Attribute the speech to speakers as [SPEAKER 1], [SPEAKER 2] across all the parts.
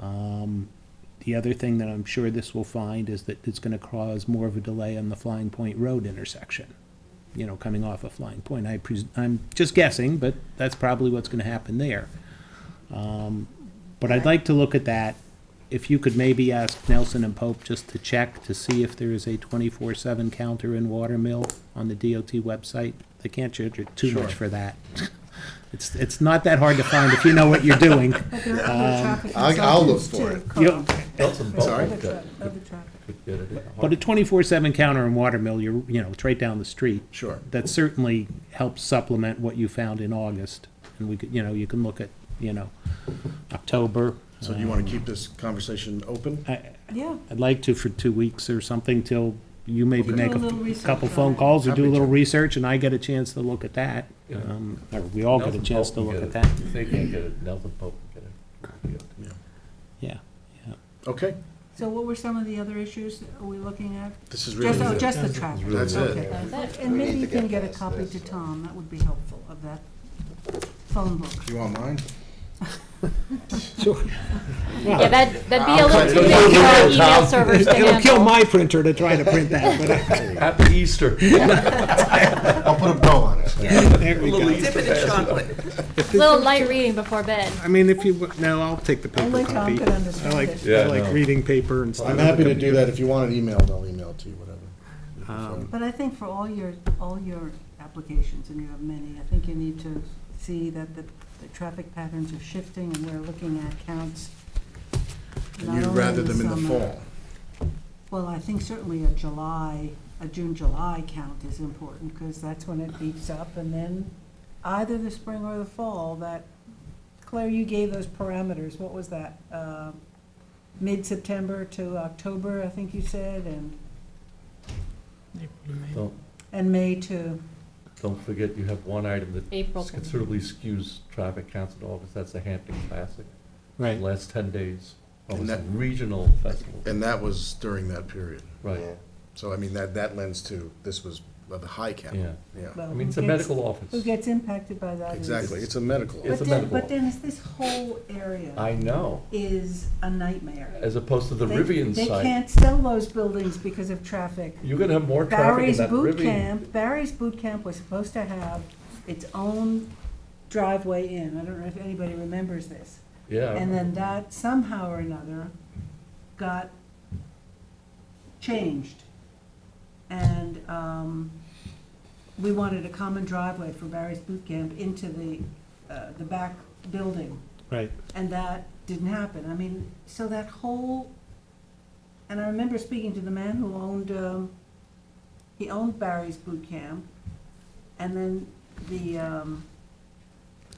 [SPEAKER 1] Um, The other thing that I'm sure this will find is that it's gonna cause more of a delay on the Flying Point Road intersection, you know, coming off of Flying Point. I pres, I'm just guessing, but that's probably what's gonna happen there. Um, But I'd like to look at that. If you could maybe ask Nelson and Pope just to check to see if there is a twenty-four seven counter in Watermill on the DOT website. They can't charge you too much
[SPEAKER 2] Sure.
[SPEAKER 1] for that. It's, it's not that hard to find if you know what you're doing.
[SPEAKER 3] But there are other traffic
[SPEAKER 2] Um, I'll- I'll look
[SPEAKER 3] consultants
[SPEAKER 2] for it.
[SPEAKER 3] too, Colin.
[SPEAKER 2] Nelson Pope
[SPEAKER 3] Other
[SPEAKER 2] could-
[SPEAKER 3] tra- Other traffic.
[SPEAKER 1] But a twenty-four seven counter in Watermill, you're, you know, it's right down the street.
[SPEAKER 2] Sure.
[SPEAKER 1] That certainly helps supplement what you found in August. And we could, you know, you can look at, you know, October.
[SPEAKER 2] So do you want to keep this conversation open?
[SPEAKER 1] I,
[SPEAKER 3] Yeah,
[SPEAKER 1] I'd like to for two weeks or something till you maybe
[SPEAKER 2] Okay.
[SPEAKER 1] make
[SPEAKER 3] Do a little
[SPEAKER 1] a
[SPEAKER 3] research
[SPEAKER 1] couple
[SPEAKER 3] on
[SPEAKER 1] phone
[SPEAKER 3] it.
[SPEAKER 1] calls or do a
[SPEAKER 2] Happy
[SPEAKER 1] little
[SPEAKER 2] to.
[SPEAKER 1] research and I get a chance to look at that.
[SPEAKER 4] Yeah.
[SPEAKER 1] Um, Or we all get a
[SPEAKER 4] Nelson
[SPEAKER 1] chance to
[SPEAKER 4] Pope
[SPEAKER 1] look
[SPEAKER 4] can
[SPEAKER 1] at
[SPEAKER 4] get
[SPEAKER 1] that.
[SPEAKER 4] it. If they can't get it, Nelson Pope can get it.
[SPEAKER 1] Yeah.
[SPEAKER 2] Okay,
[SPEAKER 3] so what were some of the other issues that are we looking at?
[SPEAKER 2] this is really
[SPEAKER 3] Just, oh,
[SPEAKER 2] it.
[SPEAKER 3] just the traffic.
[SPEAKER 2] That's it.
[SPEAKER 3] Okay.
[SPEAKER 5] That's it.
[SPEAKER 3] And
[SPEAKER 5] We
[SPEAKER 3] maybe
[SPEAKER 5] need
[SPEAKER 3] you
[SPEAKER 5] to
[SPEAKER 3] can
[SPEAKER 5] get
[SPEAKER 3] get a
[SPEAKER 5] past
[SPEAKER 3] copy
[SPEAKER 5] this.
[SPEAKER 3] to Tom, that would be helpful, of that phone book.
[SPEAKER 2] You want mine?
[SPEAKER 5] Yeah, that, that'd be a
[SPEAKER 2] I'll
[SPEAKER 5] little
[SPEAKER 2] cut
[SPEAKER 5] too
[SPEAKER 2] it.
[SPEAKER 5] big for our email servers to
[SPEAKER 1] It'll kill
[SPEAKER 5] handle.
[SPEAKER 1] my printer to try to print that, but uh, I-
[SPEAKER 4] Happy Easter.
[SPEAKER 2] I'll put a bow on it.
[SPEAKER 1] there we go.
[SPEAKER 5] Little light reading before bed.
[SPEAKER 1] I mean, if you, w- no, I'll take the paper
[SPEAKER 3] Only Tom
[SPEAKER 1] copy.
[SPEAKER 3] could
[SPEAKER 1] I
[SPEAKER 3] understand
[SPEAKER 1] like,
[SPEAKER 3] it.
[SPEAKER 1] I
[SPEAKER 4] Yeah,
[SPEAKER 1] like
[SPEAKER 4] no.
[SPEAKER 1] reading paper and stuff.
[SPEAKER 2] I'm happy to do that. If you want it emailed, I'll email it to you, whatever.
[SPEAKER 3] But I think for all your, all your applications, and you have many, I think you need to see that the, the traffic patterns are shifting and we're looking at counts.
[SPEAKER 2] And
[SPEAKER 3] not
[SPEAKER 2] you'd
[SPEAKER 3] only uh,
[SPEAKER 2] rather them in the
[SPEAKER 3] summer-
[SPEAKER 2] fall.
[SPEAKER 3] Well, I think certainly a July, a June-July count is important, because that's when it beats up, and then either the spring or the fall, that, Claire, you gave those parameters, what was that? Uh, Mid-September to October, I think you said, and,
[SPEAKER 4] Don't,
[SPEAKER 3] and May to,
[SPEAKER 4] don't forget, you have one item that
[SPEAKER 5] April.
[SPEAKER 4] considerably skews traffic counts in August, that's the Hampton Classic.
[SPEAKER 1] Right.
[SPEAKER 4] Last ten days, oh,
[SPEAKER 2] And
[SPEAKER 4] it's a
[SPEAKER 2] that-
[SPEAKER 4] regional festival,
[SPEAKER 2] And that was during that period.
[SPEAKER 4] right,
[SPEAKER 2] So I mean, that, that lends to, this was of the high cap.
[SPEAKER 4] yeah.
[SPEAKER 2] Yeah,
[SPEAKER 3] well,
[SPEAKER 4] I
[SPEAKER 3] who
[SPEAKER 4] mean, it's a
[SPEAKER 3] gets-
[SPEAKER 4] medical
[SPEAKER 3] Who
[SPEAKER 4] office.
[SPEAKER 3] gets impacted by that is.
[SPEAKER 2] exactly. It's a medical.
[SPEAKER 3] But
[SPEAKER 4] It's a
[SPEAKER 3] Den-
[SPEAKER 4] medical
[SPEAKER 3] but
[SPEAKER 4] office.
[SPEAKER 3] Dennis, this whole area
[SPEAKER 4] I know,
[SPEAKER 3] is a nightmare.
[SPEAKER 4] as opposed to the
[SPEAKER 3] They-
[SPEAKER 4] Rivian
[SPEAKER 3] They
[SPEAKER 4] site.
[SPEAKER 3] can't sell those buildings because of traffic.
[SPEAKER 4] You're gonna have more traffic in
[SPEAKER 3] Barry's
[SPEAKER 4] that
[SPEAKER 3] Boot
[SPEAKER 4] Rivian.
[SPEAKER 3] Camp, Barry's Boot Camp was supposed to have its own driveway in. I don't know if anybody remembers this.
[SPEAKER 4] Yeah.
[SPEAKER 3] And then that somehow or another got changed. And um, we wanted a common driveway for Barry's Boot Camp into the, uh, the back building.
[SPEAKER 1] Right.
[SPEAKER 3] And that didn't happen. I mean, so that whole, and I remember speaking to the man who owned, um, he owned Barry's Boot Camp, and then the, um,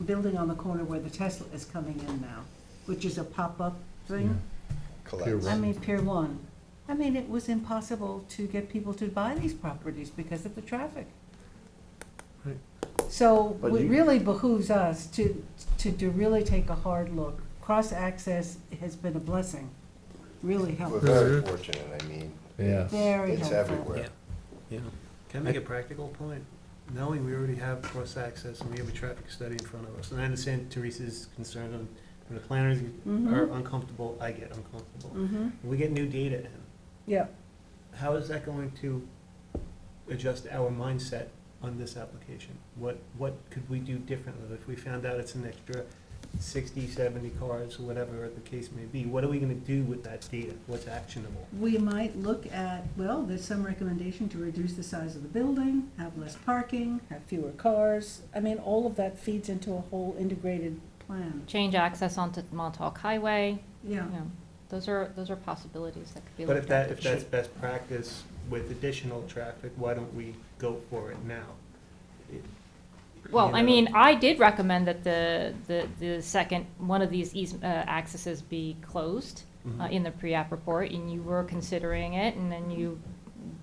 [SPEAKER 3] building on the corner where the Tesla is coming in now, which is a pop-up thing. I mean, Pier One. I mean, it was impossible to get people to buy these properties because of the traffic.
[SPEAKER 1] Right.
[SPEAKER 3] So
[SPEAKER 2] But
[SPEAKER 3] it
[SPEAKER 2] you-
[SPEAKER 3] really behooves us to, to, to really take a hard look. Cross-access has been a blessing, really
[SPEAKER 5] We're
[SPEAKER 3] helpful,
[SPEAKER 5] very fortunate, I mean,
[SPEAKER 4] Yeah.
[SPEAKER 3] very
[SPEAKER 5] it's
[SPEAKER 3] helpful.
[SPEAKER 5] everywhere.
[SPEAKER 1] Yeah.
[SPEAKER 6] Can I make a practical point? Knowing we already have cross-access and we have a traffic study in front of us, and I understand Teresa's concern on, when the planners are
[SPEAKER 3] Mhm.
[SPEAKER 6] uncomfortable, I get uncomfortable.
[SPEAKER 3] Mhm.
[SPEAKER 6] We get new data in.
[SPEAKER 3] Yeah,
[SPEAKER 6] How is that going to adjust our mindset on this application? What, what could we do differently if we found out it's an extra 60, 70 cars, whatever the case may be? What are we gonna do with that data? What's actionable?
[SPEAKER 3] we might look at, well, there's some recommendation to reduce the size of the building, have less parking, have fewer cars. I mean, all of that feeds into a whole integrated plan.
[SPEAKER 5] Change access onto Montauk Highway,
[SPEAKER 3] Yeah.
[SPEAKER 5] you know, those are, those are possibilities that could be
[SPEAKER 6] But
[SPEAKER 5] looked
[SPEAKER 6] if
[SPEAKER 5] at.
[SPEAKER 6] that, if that's best practice with additional traffic, why don't we go for it now? It-
[SPEAKER 5] Well,
[SPEAKER 6] you
[SPEAKER 5] I
[SPEAKER 6] know,
[SPEAKER 5] mean, I did recommend that the, the, the second, one of these eas- uh, accesses be closed uh,
[SPEAKER 6] Mhm.
[SPEAKER 5] in the pre-app report, and you were considering it, and then you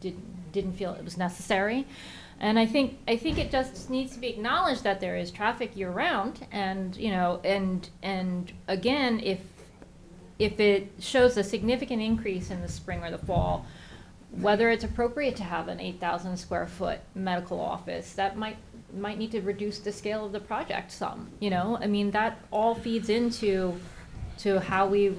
[SPEAKER 5] did, didn't feel it was necessary. And I think, I think it just needs to be acknowledged that there is traffic year-round, and, you know, and, and again, if, if it shows a significant increase in the spring or the fall, whether it's appropriate to have an eight thousand square foot medical office, that might, might need to reduce the scale of the project some, you know? I mean, that all feeds into, to how we